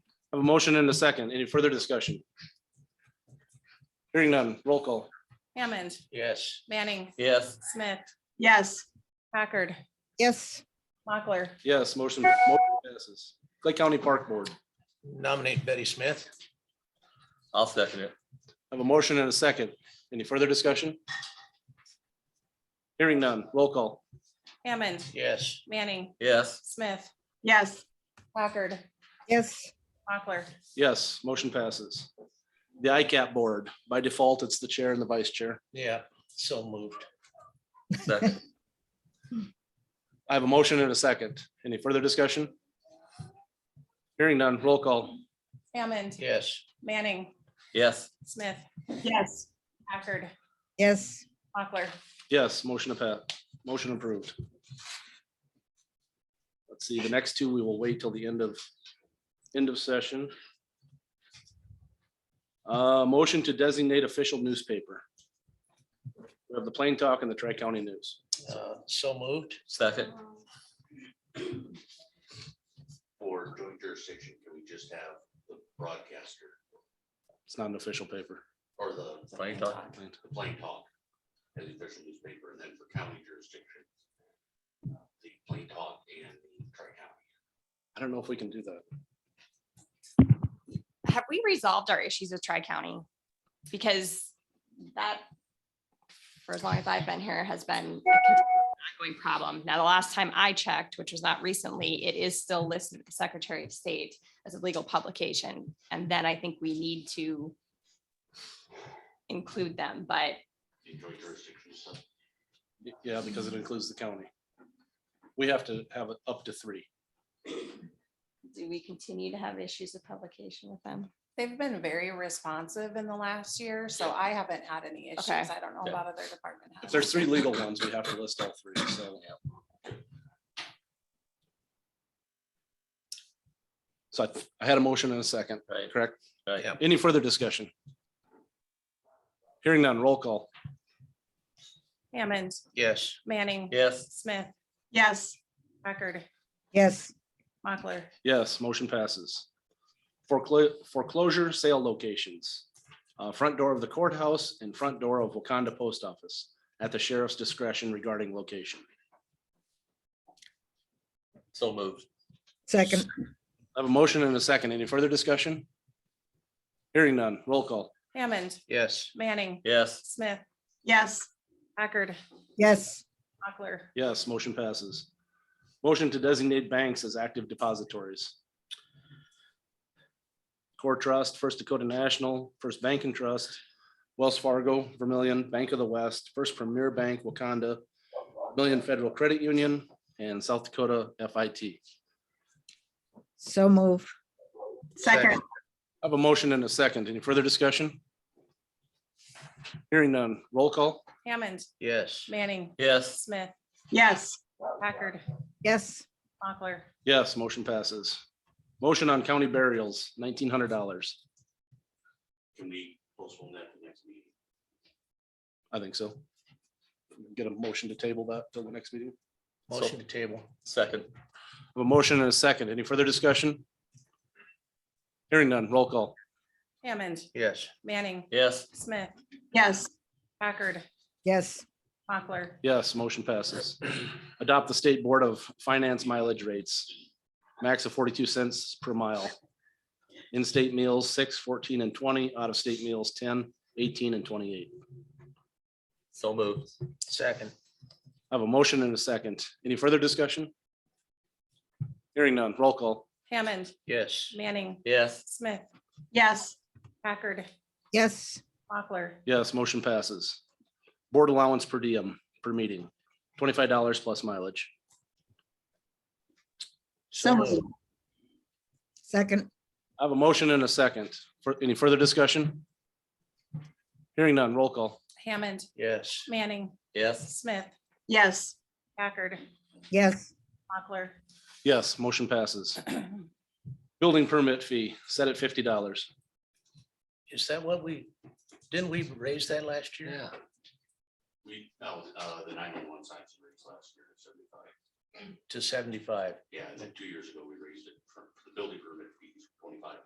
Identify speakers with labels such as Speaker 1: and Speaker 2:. Speaker 1: I have a motion and a second. Any further discussion? Hearing none, roll call.
Speaker 2: Hammond,
Speaker 3: Yes.
Speaker 2: Manning,
Speaker 3: Yes.
Speaker 2: Smith,
Speaker 4: yes,
Speaker 2: Packard,
Speaker 5: yes,
Speaker 2: Mochler,
Speaker 1: Yes, motion motion passes. Clay County Park Board.
Speaker 3: Nominate Betty Smith. I'll second it.
Speaker 1: I have a motion and a second. Any further discussion? Hearing none, roll call.
Speaker 2: Hammond,
Speaker 3: Yes.
Speaker 2: Manning,
Speaker 3: Yes.
Speaker 2: Smith,
Speaker 4: yes,
Speaker 2: Packard,
Speaker 5: yes,
Speaker 2: Mochler,
Speaker 1: Yes, motion passes. The ICAP Board, by default, it's the chair and the vice chair.
Speaker 3: Yeah, so moved.
Speaker 1: I have a motion and a second. Any further discussion? Hearing none, roll call.
Speaker 2: Hammond,
Speaker 3: Yes.
Speaker 2: Manning,
Speaker 3: Yes.
Speaker 2: Smith,
Speaker 4: yes,
Speaker 2: Packard,
Speaker 5: yes,
Speaker 2: Mochler,
Speaker 1: Yes, motion approved, motion approved. Let's see, the next two, we will wait till the end of, end of session. Uh, motion to designate official newspaper. We have the Plain Talk and the Tri-County News.
Speaker 3: Uh, so moved. Second.
Speaker 6: for joint jurisdiction, can we just have the broadcaster
Speaker 1: It's not an official paper.
Speaker 6: or the?
Speaker 3: Plain Talk.
Speaker 1: Plain Talk.
Speaker 6: The plain talk as the official newspaper, and then for county jurisdiction, uh, the plain talk and the tri-county.
Speaker 1: I don't know if we can do that.
Speaker 7: have we resolved our issues with Tri-County? Because that, for as long as I've been here, has been a ongoing problem. Now, the last time I checked, which was not recently, it is still listed with the Secretary of State as a legal publication. And then I think we need to include them, but
Speaker 6: The joint jurisdiction stuff.
Speaker 1: Y- Yeah, because it includes the county. We have to have it up to three.
Speaker 7: do we continue to have issues of publication with them?
Speaker 2: they've been very responsive in the last year, so I haven't had any issues.
Speaker 7: Okay.
Speaker 2: I don't know
Speaker 3: Yeah.
Speaker 2: about other department.
Speaker 1: If
Speaker 2: heads.
Speaker 1: there's three legal ones, we have to list all three, so. So I- I had a motion and a second,
Speaker 3: Right.
Speaker 1: correct?
Speaker 3: Right. Yeah.
Speaker 1: Any further discussion? Hearing none, roll call.
Speaker 2: Hammond,
Speaker 3: Yes.
Speaker 2: Manning,
Speaker 3: Yes.
Speaker 2: Smith,
Speaker 4: yes,
Speaker 2: Packard,
Speaker 5: yes,
Speaker 2: Mochler,
Speaker 1: Yes, motion passes. Foreclosure, foreclosure sale locations, uh, front door of the courthouse and front door of Wakanda Post Office at the sheriff's discretion regarding location.
Speaker 3: So moved.
Speaker 5: second,
Speaker 1: I have a motion and a second. Any further discussion? Hearing none, roll call.
Speaker 2: Hammond,
Speaker 3: Yes.
Speaker 2: Manning,
Speaker 3: Yes.
Speaker 2: Smith,
Speaker 4: yes,
Speaker 2: Packard,
Speaker 5: yes,
Speaker 2: Mochler,
Speaker 1: Yes, motion passes. Motion to designate banks as active depositories. Core Trust, First Dakota National, First Bank and Trust, Wells Fargo, Vermillion, Bank of the West, First Premier Bank, Wakanda, Million Federal Credit Union, and South Dakota FIT. I
Speaker 5: so move,
Speaker 4: second,
Speaker 1: have a motion and a second. Any further discussion? Hearing none. Roll call.
Speaker 2: Hammond,
Speaker 3: Yes.
Speaker 2: Manning,
Speaker 3: Yes.
Speaker 2: Smith,
Speaker 4: yes,
Speaker 2: Packard,
Speaker 5: yes,
Speaker 2: Mochler,
Speaker 1: Yes, motion passes. Motion on county burials, nineteen hundred dollars.
Speaker 6: Can we postpone that to the next meeting?
Speaker 1: I think so. Get a motion to table that till the next meeting.
Speaker 3: Motion to table. Second.
Speaker 1: I have A motion and a second. Any further discussion? Hearing none, roll call.
Speaker 2: Hammond,
Speaker 3: Yes.
Speaker 2: Manning,
Speaker 3: Yes.
Speaker 2: Smith,
Speaker 4: yes,
Speaker 2: Packard,
Speaker 5: yes,
Speaker 2: Mochler,
Speaker 1: Yes, motion passes. Adopt the state board of finance mileage rates. Max of forty-two cents per mile. In-state meals, six, 14, and twenty. Out-of-state meals, 10, 18, and twenty-eight.
Speaker 3: So moved. Second.
Speaker 1: I have a motion and a second. Any further discussion? Hearing none, roll call.
Speaker 2: Hammond,
Speaker 3: Yes.
Speaker 2: Manning,
Speaker 3: Yes.
Speaker 2: Smith,
Speaker 4: yes,
Speaker 2: Packard,
Speaker 5: yes,
Speaker 2: Mochler,
Speaker 1: Yes, motion passes. Board allowance per diem per meeting, twenty-five dollars plus mileage.
Speaker 4: so moved,
Speaker 5: second,
Speaker 1: I have a motion and a second. For any further discussion? Hearing none, roll call.
Speaker 2: Hammond,
Speaker 3: Yes.
Speaker 2: Manning,
Speaker 3: Yes.
Speaker 2: Smith,
Speaker 4: yes,
Speaker 2: Packard,
Speaker 5: yes,
Speaker 2: Mochler,
Speaker 1: Yes, motion passes. Building permit fee set at fifty dollars.
Speaker 3: Is that what we, didn't we raise that last year? Yeah.
Speaker 6: We, no, uh, the nine-one-one signs we raised last year, at seventy-five.
Speaker 3: To seventy-five.
Speaker 6: Yeah, and then two years ago, we raised it for for the building permit fees, twenty-five